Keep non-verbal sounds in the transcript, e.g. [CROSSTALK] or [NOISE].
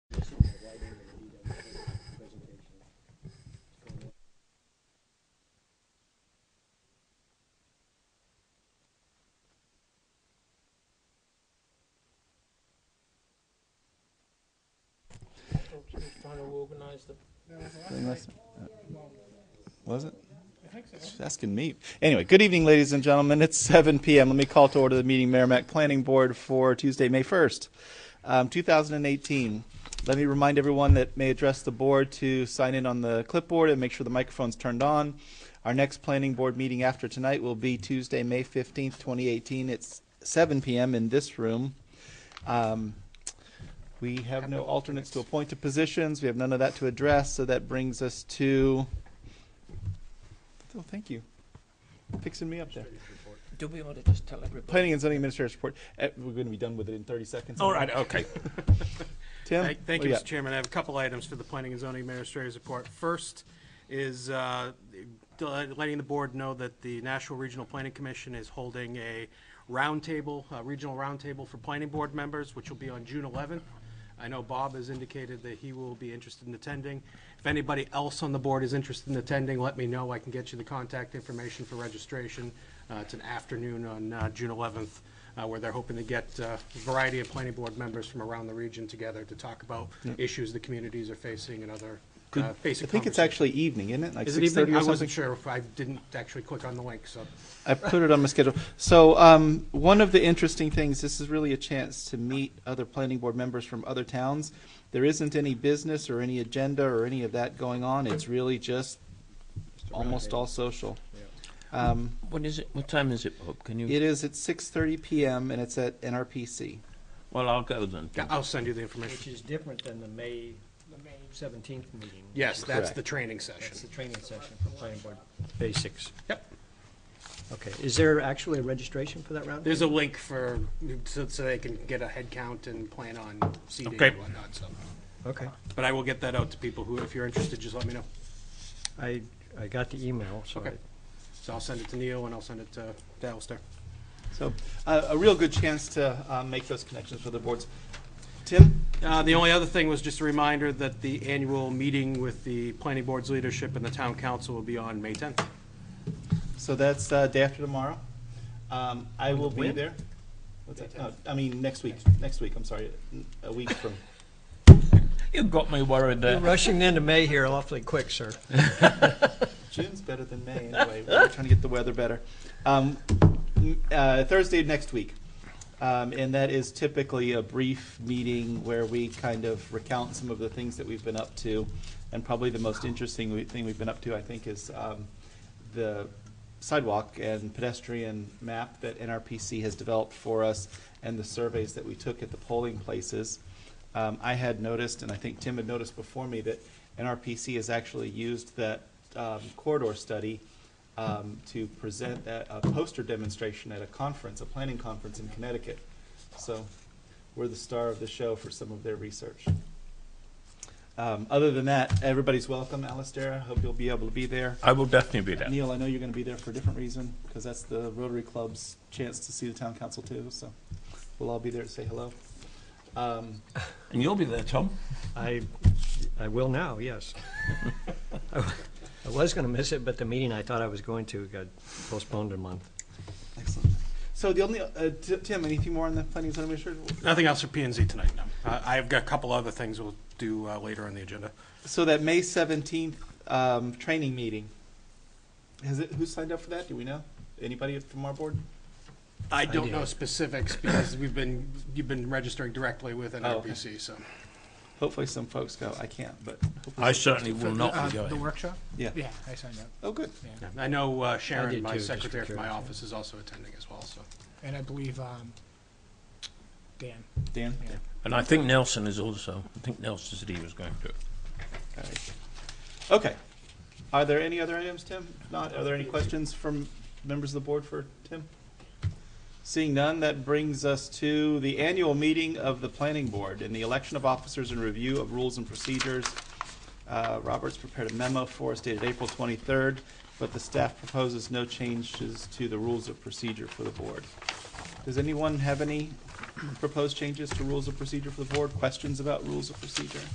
folks who are trying to organize the. They must- uh, Was it? I think so. She's asking me. Anyway, good evening, ladies and gentlemen. It's 7 p.m. Let me call to order the meeting Merrimack Planning Board for Tuesday, May 1st, um, 2018. Let me remind everyone that may address the board to sign in on the clipboard and make sure the microphone's turned on. Our next planning board meeting after tonight will be Tuesday, May 15th, 2018. It's 7 p.m. in this room. Um, we have no alternates to appoint to positions. We have none of that to address, so that brings us to Oh, thank you. Fixing me up there. Do we want to just tell everybody? Planning and zoning administrator's report. Eh, We're going to be done with it in 30 seconds. All right, okay. Tim? [LAUGHS] Thank thank what you, do Mr. Chairman. I have a couple items for the Planning and Zoning Administrator's report. First is uh, del- letting the board know that the National Regional Planning Commission is holding a roundtable, a regional roundtable for planning board members, which will be on June 11th. I know Bob has indicated that he will be interested in attending. If anybody else on the board is interested in attending, let me know. I can get you the contact information for registration. Uh, It's an afternoon on uh, June 11th uh, where they're hoping to get uh, a variety of planning board members from around the region together to talk about issues the communities are facing and other Good. uh, basic I think it's conversations. actually evening, isn't it? Like Is it 6:30 or evening? I something? wasn't sure if I didn't actually click on the link, so. I put it on my schedule. So um, one of the interesting things, this is really a chance to meet other planning board members from other towns. There isn't any business or any agenda or any of that going on. It's really just almost all social. Um, What is it? What time is it, Bob? Can you? It is at 6:30 PM and it's at NRPC. Well, I'll go then. Yeah, I'll send you the Which information. is different than the May seventeenth meeting. Yes, that's Correct. the training That's the session. training session for planning board basics. Yep. Okay, is there actually a registration for that round? There's a link for, so so they can get a head count and plan on seating Okay. and whatnot, so. Okay, But I will get that out to people who, if you're interested, just let me know. I, I got the email, so Okay. I- So I'll send it to Neil and I'll send it to to Alistair. So uh, a real good chance to uh, make those connections with the boards. Tim? Uh, The only other thing was just a reminder that the annual meeting with the planning board's leadership and the town council will be on May 10th. So that's uh, day after tomorrow. Um, I will be When? there. What's that? No, I mean, next week, next week, I'm sorry, n- a week from. You got me worried You're there. rushing into May here awfully quick, sir. June's better than May anyway. We're trying to get the weather better. Um, m- uh, Thursday of next week. Um, and that is typically a brief meeting where we kind of recount some of the things that we've been up to. And probably the most interesting we- thing we've been up to, I think, is um, the sidewalk and pedestrian map that NRPC has developed for us and the surveys that we took at the polling places. Um, I had noticed, and I think Tim had noticed before me, that NRPC has actually used that um, corridor study um, to present a, a poster demonstration at a conference, a planning conference in Connecticut. So we're the star of the show for some of their research. Um, other than that, everybody's welcome. Alistair, I hope you'll be able to be there. I will definitely be there. Neil, I know you're going to be there for a different reason because that's the Rotary Club's chance to see the town council too. So we'll all be there to say hello. Um, And you'll be there, Tom. I, I will [LAUGHS] now, yes. I was gonna miss it, but the meeting I thought I was going to got postponed a month. excellent. So the only uh, Ti- Tim, anything more on the planning and zoning administrator? Nothing else for P and Z tonight, no. Uh, I've got a couple other things we'll do uh, later on the agenda. So that May seventeenth um, training meeting, has it? Who signed up for that? Do we know? Anybody from our board? I don't Idea. know specifics because we've been, you've been registering directly with Oh, okay. NRPC, so. Hopefully, some folks go. I can't, but hopefully I some- certainly will not be uh, The going. workshop? yeah. Yeah, I signed up. Oh, good. I know uh, I Sharon, did my too, just for secretary from my curiosity. office, is also attending as well, so. And I believe um, Dan. Dan. Yeah. And I think Nelson is also. I think Nelson said he was going to. All right. Okay. Are there any other items, Tim? If not, are there any questions from members of the board for Tim? Seeing none, that brings us to the annual meeting of the planning board and the election of officers and review of rules and procedures. Uh, Robert's prepared a memo for us dated April twenty-third, but the staff proposes no changes to the rules of procedure for the board. Does anyone have any proposed changes to rules of procedure for the board? Questions about rules of procedure?